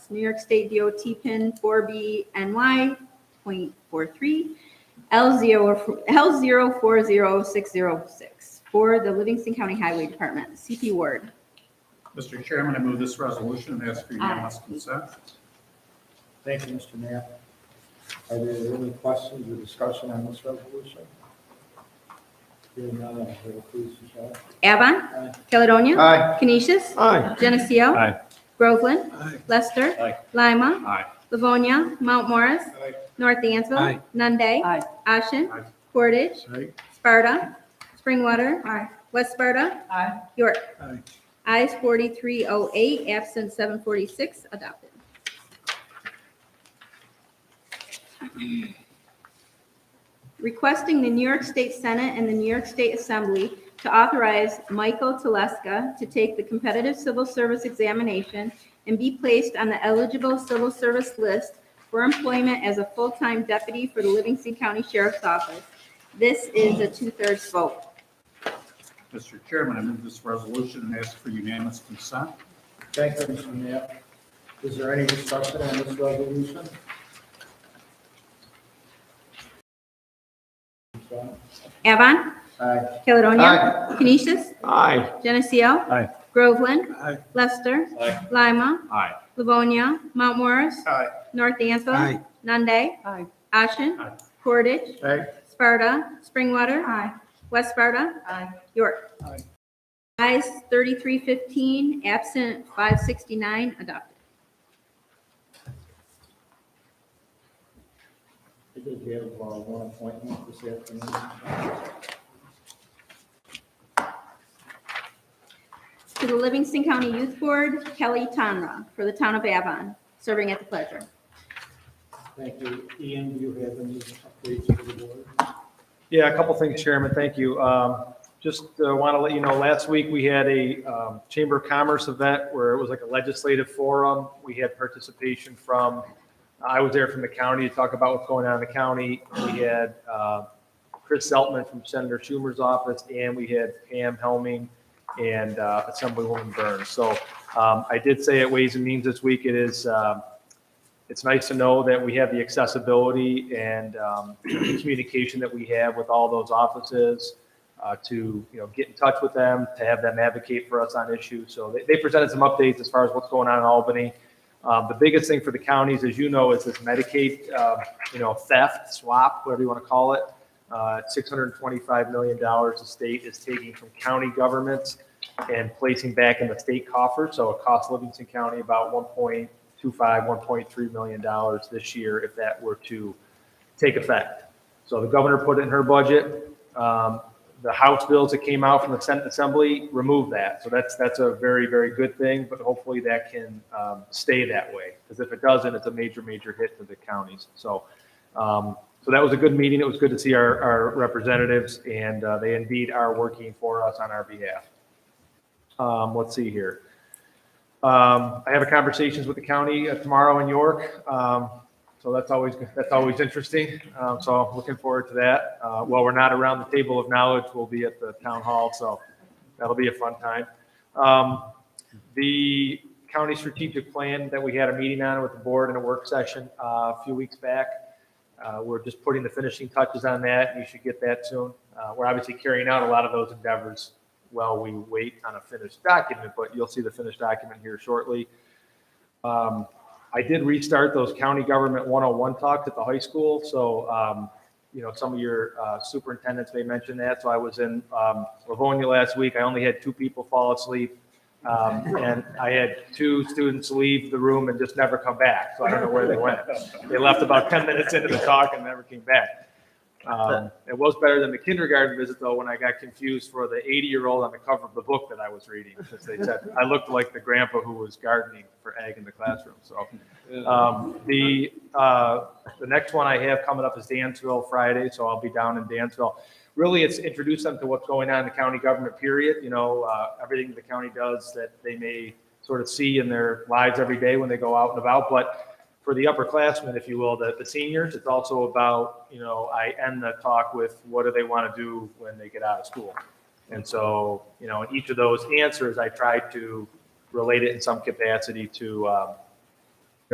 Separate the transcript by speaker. Speaker 1: New York State DOT PIN 4BNY.43, L0, L040606 for the Livingston County Highway Department. CP Ward.
Speaker 2: Mr. Chairman, I move this resolution and ask for unanimous consent.
Speaker 3: Thank you, Mr. Knapp. Are there any questions or discussion on this resolution? Hearing none, Madam Clerk, please, Michelle.
Speaker 1: Avon.
Speaker 3: Aye.
Speaker 1: Caledonia.
Speaker 3: Aye.
Speaker 1: Canisius.
Speaker 3: Aye.
Speaker 1: Geneseo.
Speaker 4: Aye.
Speaker 1: Groveland.
Speaker 3: Aye.
Speaker 1: Lester.
Speaker 4: Aye.
Speaker 1: Lima.
Speaker 4: Aye.
Speaker 1: Livonia. Mount Morris.
Speaker 3: Aye.
Speaker 1: North Dansville.
Speaker 4: Aye.
Speaker 1: Nunde.
Speaker 5: Aye.
Speaker 1: Ashen.
Speaker 2: Aye.
Speaker 1: Portage.
Speaker 3: Aye.
Speaker 1: Sparta. Springwater. West Sparta.
Speaker 5: Aye.
Speaker 1: York.
Speaker 3: Aye.
Speaker 1: Ayes 4308, absent 746, adopted. Requesting the New York State Senate and the New York State Assembly to authorize Michael Teleska to take the competitive civil service examination and be placed on the eligible civil service list for employment as a full-time deputy for the Livingston County Sheriff's Office. This is a two-thirds vote.
Speaker 2: Mr. Chairman, I move this resolution and ask for unanimous consent.
Speaker 3: Thank you, Mr. Knapp. Is there any discussion on this resolution? Michelle?
Speaker 1: Avon.
Speaker 3: Aye.
Speaker 1: Caledonia. Canisius.
Speaker 4: Aye.
Speaker 1: Geneseo.
Speaker 4: Aye.
Speaker 1: Groveland.
Speaker 3: Aye.
Speaker 1: Lester.
Speaker 4: Aye.
Speaker 1: Lima.
Speaker 4: Aye.
Speaker 1: Livonia. Mount Morris.
Speaker 2: Aye.
Speaker 1: North Dansville.
Speaker 3: Aye.
Speaker 1: Nunde.
Speaker 5: Aye.
Speaker 1: Ashen.
Speaker 2: Aye.
Speaker 1: Portage.
Speaker 3: Aye.
Speaker 1: Sparta. Springwater. West Sparta.
Speaker 5: Aye.
Speaker 1: York.
Speaker 3: Aye.
Speaker 1: Ayes 3315, absent 569, adopted.
Speaker 3: I did have uh, one appointment this afternoon.
Speaker 1: To the Livingston County Youth Board, Kelly Tonra, for the town of Avon, serving at the pleasure.
Speaker 3: Thank you. Ian, do you have any updates for the board?
Speaker 6: Yeah, a couple things, Chairman, thank you. Um, Just want to let you know, last week, we had a um, Chamber of Commerce event where it was like a legislative forum. We had participation from, I was there from the county to talk about what's going on in the county. We had uh, Chris Zeltman from Senator Schumer's office, and we had Pam Helming and uh, Assemblywoman Burns. So um, I did say at Ways and Means this week, it is, um, it's nice to know that we have the accessibility and um, the communication that we have with all those offices uh, to, you know, get in touch with them, to have them advocate for us on issues. So they, they presented some updates as far as what's going on in Albany. Um, The biggest thing for the counties, as you know, is this Medicaid, um, you know, theft, swap, whatever you want to call it. Uh, $625 million the state is taking from county governments and placing back in the state coffers. So it costs Livingston County about 1.25, 1.3 million dollars this year if that were to take effect. So the governor put it in her budget. Um, The House bills that came out from the Senate Assembly removed that. So that's, that's a very, very good thing, but hopefully that can um, stay that way. Because if it doesn't, it's a major, major hit to the counties. So, um, so that was a good meeting. It was good to see our, our representatives and uh, they indeed are working for us on our behalf. Um, let's see here. Um, I have a conversations with the county uh, tomorrow in York. Um, so that's always, that's always interesting. Um, so I'm looking forward to that. Uh, while we're not around the table of knowledge, we'll be at the town hall. So that'll be a fun time. Um, the county strategic plan that we had a meeting on with the board in a work session, uh, a few weeks back. Uh, we're just putting the finishing touches on that. You should get that soon. Uh, we're obviously carrying out a lot of those endeavors while we wait on a finished document, but you'll see the finished document here shortly. Um, I did restart those county government 101 talks at the high school, so, um, you know, some of your uh, superintendents may mention that. So I was in um, Livonia last week. I only had two people fall asleep. Um, And I had two students leave the room and just never come back, so I don't know where they went. They left about 10 minutes into the talk and never came back. Um, it was better than the kindergarten visit though, when I got confused for the 80 year old on the cover of the book that I was reading. Because they said I looked like the grandpa who was gardening for ag in the classroom. So um, the uh, the next one I have coming up is Dansville Friday, so I'll be down in Dansville. Really, it's introduce them to what's going on in the county government. Period. You know, uh, everything the county does that they may sort of see in their lives every day when they go out and about, but for the upperclassmen, if you will, the, the seniors, it's also about, you know, I end the talk with what do they want to do when they get out of school? And so, you know, in each of those answers, I try to relate it in some capacity to, um,